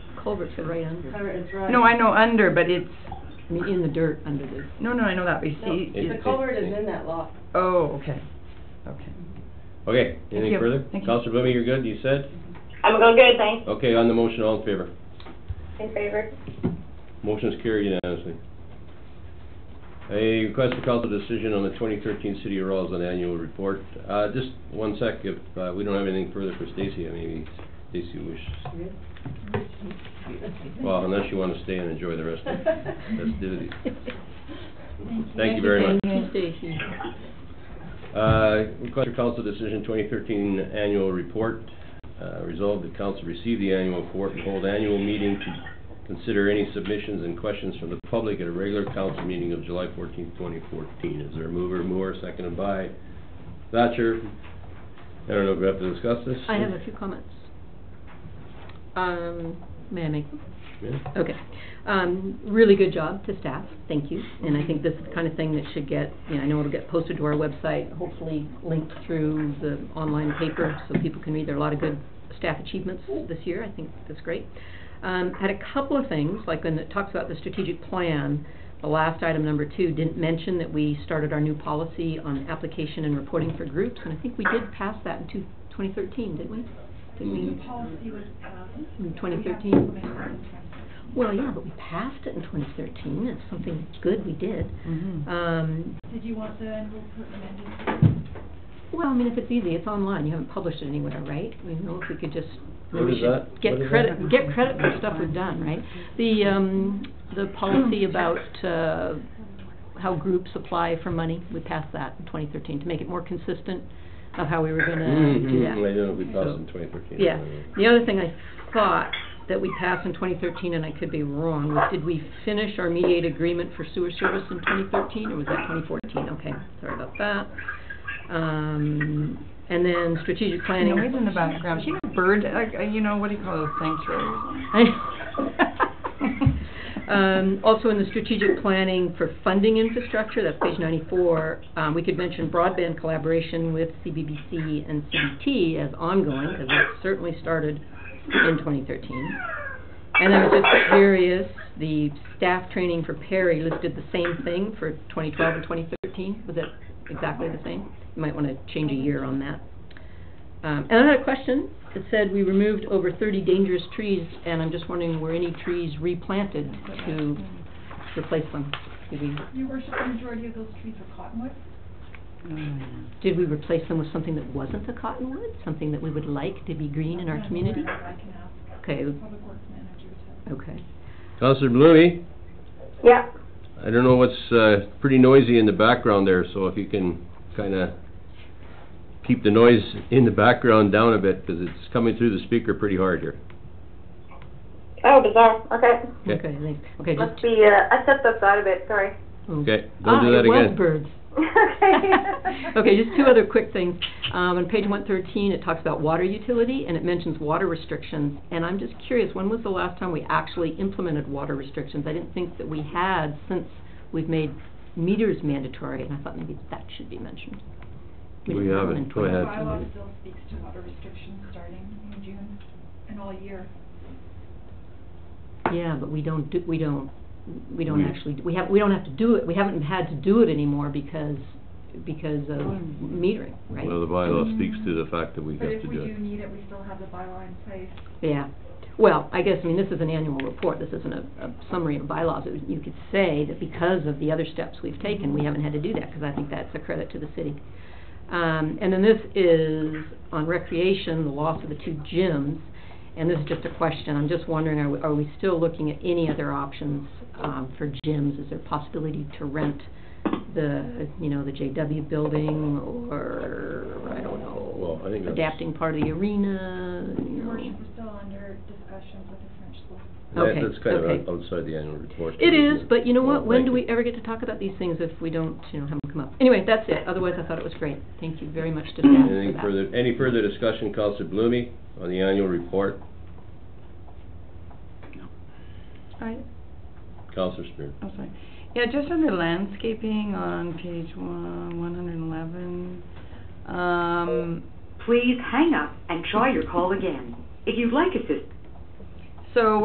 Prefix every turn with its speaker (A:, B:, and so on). A: culverts are right under,
B: Cover is right.
C: No, I know under, but it's,
A: I mean, in the dirt under the,
C: no, no, I know that, but you
B: No,
C: see,
B: The
C: it's,
B: culvert is in that lot.
C: oh, okay, okay.
D: Okay, anything
C: you.
D: further?
C: Thank you.
D: Counselor Blumey, you're good, you said?
E: I'm going good, thanks.
D: Okay, on the motion, all in favor?
E: In favor?
D: Motion is carried unanimously. A request for council decision on the twenty thirteen City of Rawls on annual report. Uh, just one sec, if, uh, we don't have anything further for Stacy, I mean, Stacy wish, well, unless you wanna stay and enjoy the rest of the festivities. Thank you very much.
A: Thank you, Stacy.
D: Uh, request for council decision, twenty thirteen annual report. Uh, resolved that council receive the annual report and hold annual meeting to consider any submissions and questions from the public at a regular council meeting of July fourteenth, twenty fourteen. Is there a mover, Moore, seconded by Thatcher? I don't know if we have to discuss this.
A: I have a few comments. Um, may I make them?
D: Yeah.
A: Okay. Um, really good job to staff, thank you. And I think this is the kind of thing that should get, you know, I know it'll get posted to our website, hopefully linked through the online paper so people can read. There are a lot of good staff achievements this year, I think that's great. Um, had a couple of things, like when it talks about the strategic plan, the last item, number two, didn't mention that we started our new policy on application and reporting for groups, and I think we did pass that in two, twenty thirteen, didn't we? Didn't we?
F: Mm-hmm.
A: In twenty thirteen? Well, yeah, but we passed it in twenty thirteen, it's something good we did.
C: Mhm.
A: Um,
F: Did you want the annual amended?
A: well, I mean, if it's easy, it's online, you haven't published it anywhere, right? We know if we could just,
D: What
A: we
D: is
A: should
D: that?
A: get
D: What is
A: credit,
D: that?
A: get credit for stuff we've done, right? The, um, the policy about, uh, how groups apply for money, we passed that in twenty thirteen to make it more consistent of how we were gonna
D: Mhm,
A: do that.
D: I don't know if we passed in twenty thirteen.
A: Yeah, the other thing I thought that we passed in twenty thirteen, and I could be wrong, was did we finish our mediated agreement for sewer service in twenty thirteen, or was that twenty fourteen? Okay, sorry about that. Um, and then strategic planning.
C: Noise in the background, you know, bird, like, uh, you know, what do you call those sanctuaries?
A: Um, also in the strategic planning for funding infrastructure, that's page ninety-four, um, we could mention broadband collaboration with CBBC and CBT as ongoing, because it certainly started in twenty thirteen. And I was just curious, the staff training for Perry listed the same thing for twenty twelve and twenty thirteen, was it exactly the same? You might wanna change a year on that. Um, and I had a question. It said we removed over thirty dangerous trees, and I'm just wondering, were any trees replanted to replace them? Did we,
F: Your worship, the majority of those trees are cottonwood.
A: did we replace them with something that wasn't a cottonwood? Something that we would like to be green in our
F: That's
A: community?
F: where I can ask
A: Okay,
F: public works managers.
A: okay.
D: Counselor Blumey,
E: Yeah.
D: I don't know what's, uh, pretty noisy in the background there, so if you can kinda keep the noise in the background down a bit, 'cause it's coming through the speaker pretty hard here.
E: Oh, bizarre. Okay.
D: Okay.
A: Okay, thanks. Okay, just,
E: Must be, uh, I stepped outside a bit, sorry.
D: Okay,
A: ah,
D: don't do that
A: it was
D: again.
A: birds.
E: Okay.
A: Okay, just two other quick things. Um, on page one thirteen, it talks about water utility, and it mentions water restrictions. And I'm just curious, when was the last time we actually implemented water restrictions? I didn't think that we had since we've made meters mandatory, and I thought maybe that should be mentioned.
D: We
A: didn't have one in
D: haven't, go
F: The
D: ahead.
F: bylaw still speaks to water restrictions starting in June and all year.
A: Yeah, but we don't do, we don't, we don't
D: We-
A: actually, we have, we don't have to do it, we haven't had to do it anymore because, because of metering, right?
D: Well, the bylaw speaks to the fact that we have
F: But
D: to
F: if we
D: do
F: do
D: it.
F: need it, we still have the bylaw in place.
A: Yeah, well, I guess, I mean, this is an annual report, this isn't a, a summary of bylaws. It was- You could say that because of the other steps we've taken, we haven't had to do that, because I think that's a credit to the city. Um, and then this is on recreation, the loss of the two gyms, and this is just a question, I'm just wondering, are we, are we still looking at any other options, um, for gyms? Is there a possibility to rent the, you know, the JW building, or, I don't know,
D: Well, I think that's-
A: adapting part of the arena, you
F: Your
A: know?
F: worship, we're still under discussions with the French school.
D: That-
A: okay,
D: That's kind of
A: okay.
D: out- outside the annual report.
A: It is,
D: isn't it?
A: but you know
D: Well,
A: what, when do
D: thank you.
A: we ever get to talk about these things if we don't, you know, have them come up? Anyway, that's it, otherwise I thought it was great, thank you very much to staff for that.
D: Anything further, any further discussion, Counselor Blumey, on the annual report?
C: I,
D: Counselor Spear.
C: I'm sorry. Yeah, just under landscaping on page one, one hundred and eleven, um,
G: Please hang up and try your call again. If you'd like assistance,
C: so